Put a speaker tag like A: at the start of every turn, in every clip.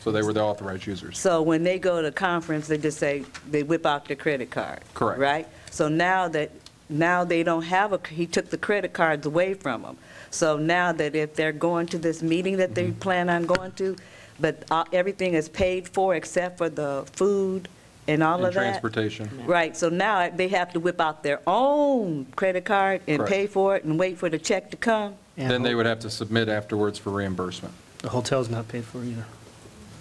A: So they were the authorized users.
B: So when they go to conference, they just say, they whip out their credit card.
A: Correct.
B: Right? So now that, now they don't have a, he took the credit cards away from them. So now that if they're going to this meeting that
A: Mm-hmm.
B: they plan on going to, but uh, everything is paid for except for the food and all
A: And
B: of that.
A: transportation.
B: Right, so now they have to whip out their own credit card and
A: Correct.
B: pay for it and wait for the check to come.
C: And
A: Then they
C: ho-
A: would have to submit afterwards for reimbursement.
C: The hotel's not paid for either.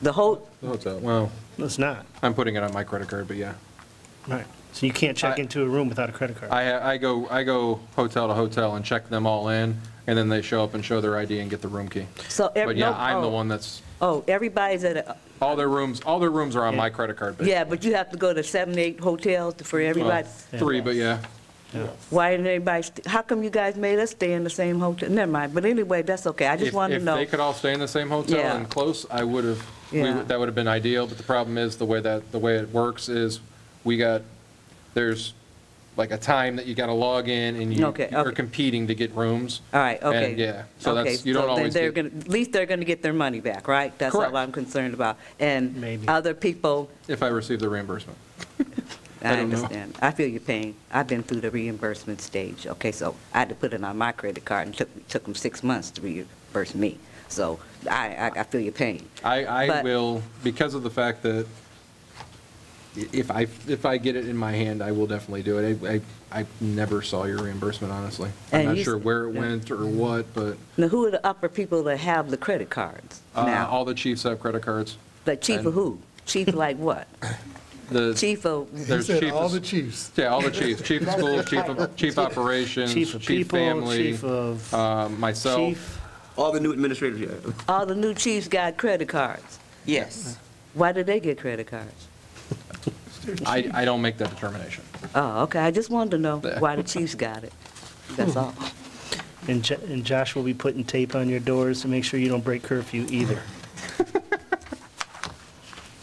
B: The whole,
A: Well,
C: It's not,
A: I'm putting it on my credit card, but yeah.
C: right. So you can't check
A: I-
C: into a room without a credit card.
A: I, I go, I go hotel to hotel and check them all in, and then they show up and show their ID and get the room key.
B: so. ev-
A: But yeah,
B: no-
A: I'm the
B: oh,
A: one that's,
B: Oh, everybody's at a,
A: all their rooms, all their rooms are on my
C: Yeah.
A: credit card. basically.
B: Yeah, but you have to go to seven, eight hotels for
A: Well,
B: everybody.
A: Three, but yeah.
B: Why didn't everybody, st- how come you guys made us stay in the same hotel? Never mind, but anyway, that's okay, I just
A: If,
B: wanted
A: if
B: to
A: they
B: know.
A: could all stay in the same hotel
B: Yeah.
A: and close, I would have, we
B: Yeah.
A: would- that would have been ideal, but the problem is, the way that, the way it works is, we got, there's like a time that you got to log in, and you
B: Okay,
A: are
B: okay.
A: competing to get rooms.
B: All right, okay.
A: And yeah, so
B: Okay,
A: that's, you don't
B: so then
A: always
B: they're
A: get-
B: gonna- At least they're going to get their money back, right? That's
A: Correct.
B: all I'm concerned about. And
C: Maybe.
B: other people,
A: If I receive the reimbursement.
B: I
A: don't know.
B: understand, I feel your pain. I've been through the reimbursement stage, okay? So I had to put it on my credit card, and took, took them six months to reimburse me. So I, I- I feel your pain.
A: I, I
B: But-
A: will, because of the fact that i- if I, if I get it in my hand, I will definitely do it. I, I I never saw your reimbursement, honestly. I'm
B: And
A: not
B: you-
A: sure where it
B: yeah.
A: went or what, but
B: Now, who are the upper people that have the credit cards
A: uh,
B: now?
A: all the chiefs have credit cards.
B: Like chief
A: And-
B: of who? Chief like what?
A: The-
B: Chief of,
D: He
A: There's
D: said
A: chief
D: all
A: of-
D: the chiefs.
A: Yeah, all the chiefs, chief of schools, chief of, chief operations,
C: Chief of
A: chief
C: people,
A: family,
C: chief of-
A: um, myself.
C: Chief,
E: All the new administrators, yeah.
B: all the new chiefs got credit cards.
E: Yes.
B: Why did they get credit cards?
A: I, I don't make that determination.
B: Oh, okay, I just wanted to know why the chiefs got it. That's all.
C: and Jo- and Josh will be putting tape on your doors to make sure you don't break curfew either.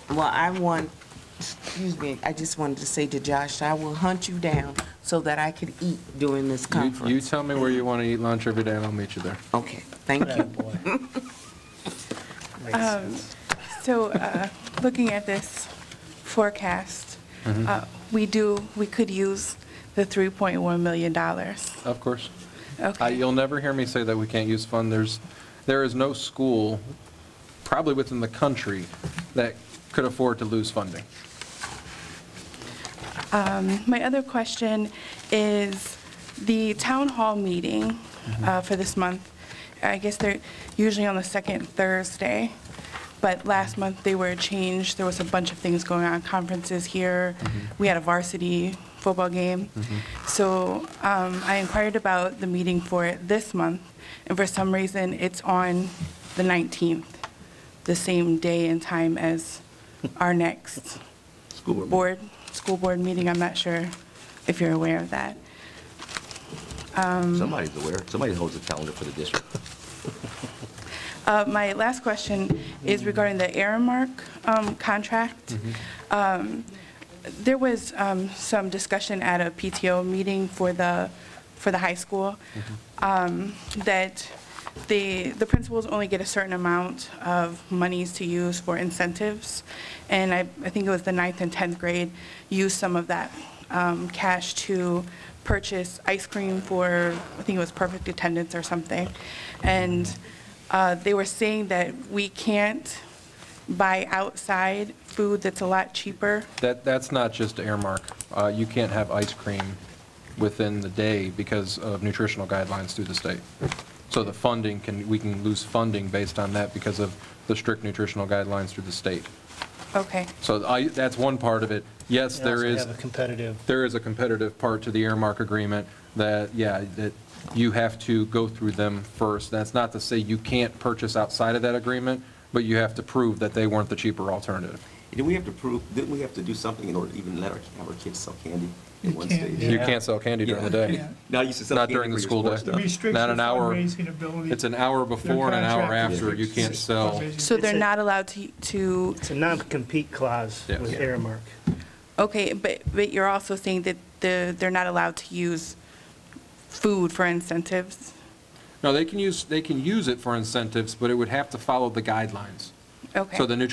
F: Well, I want, excuse me, I just wanted to say to Josh, I will hunt you down so that I could eat during this
A: You- You
F: conference.
A: tell me where you want to eat lunch every day and I'll meet you there.
F: Okay, thank you.
C: Bad boy. Makes sense.
G: So, uh, looking at this forecast, uh, we do, we could use the $3.1 million.
A: Of course. I-
G: Okay.
A: You'll never hear me say that we can't use fund. There's, there is no school, probably within the country, that could afford to lose funding.
G: My other question is the town hall meeting uh, for this month. I guess they're usually on the second Thursday, but last month they were changed. There was a bunch of things going on, conferences here. We had a varsity football game. So um, I inquired about the meeting for this month, and for some reason, it's on the 19th, the same day and time as our next
E: School board.
G: board, school board meeting, I'm not sure if you're aware of that.
E: Somebody's aware. Somebody holds the calendar for the district.
G: Uh, My last question is regarding the Aramark um, contract. Um, There was um, some discussion at a PTO meeting for the, for the high school um, that the, the principals only get a certain amount of monies to use for incentives, and I, I think it was the ninth and 10th grade used some of that um, cash to purchase ice cream for, I think it was perfect attendance or something. And uh, they were saying that we can't buy outside food that's a lot cheaper.
A: That, that's not just earmark. Uh, You can't have ice cream within the day because of nutritional guidelines through the state. So the funding can, we can lose funding based on that because of the strict nutritional guidelines through the state.
G: Okay,
A: So I, that's one part of it. Yes,
C: They
A: there
C: also
A: is,
C: have a competitive,
A: there is a competitive part to the earmark agreement that, yeah, that you have to go through them first. That's not to say you can't purchase outside of that agreement, but you have to prove that they weren't the cheaper alternative.
E: Did we have to prove, didn't we have to do something in order to even let our, have our kids sell candy at one
H: can't,
E: stage?
A: You can't sell candy during the day.
E: Now you should sell
A: Not
E: candy for
A: during
E: your
A: the school
E: sports
A: day.
E: stuff.
H: Restricts
A: Not
H: the
A: an hour.
H: fundraising ability.
A: It's an hour before and an hour after. You can't sell.
G: so they're
C: It's a-
G: not allowed to, to,
C: it's a non-compete clause
A: Yeah.
C: with
A: Yeah.
C: Aramark.
G: okay, but, but you're also saying that the, they're not allowed to use food for incentives?
A: No, they can use, they can use it for incentives, but it would have to follow the guidelines.
G: Okay.
A: So the nutrition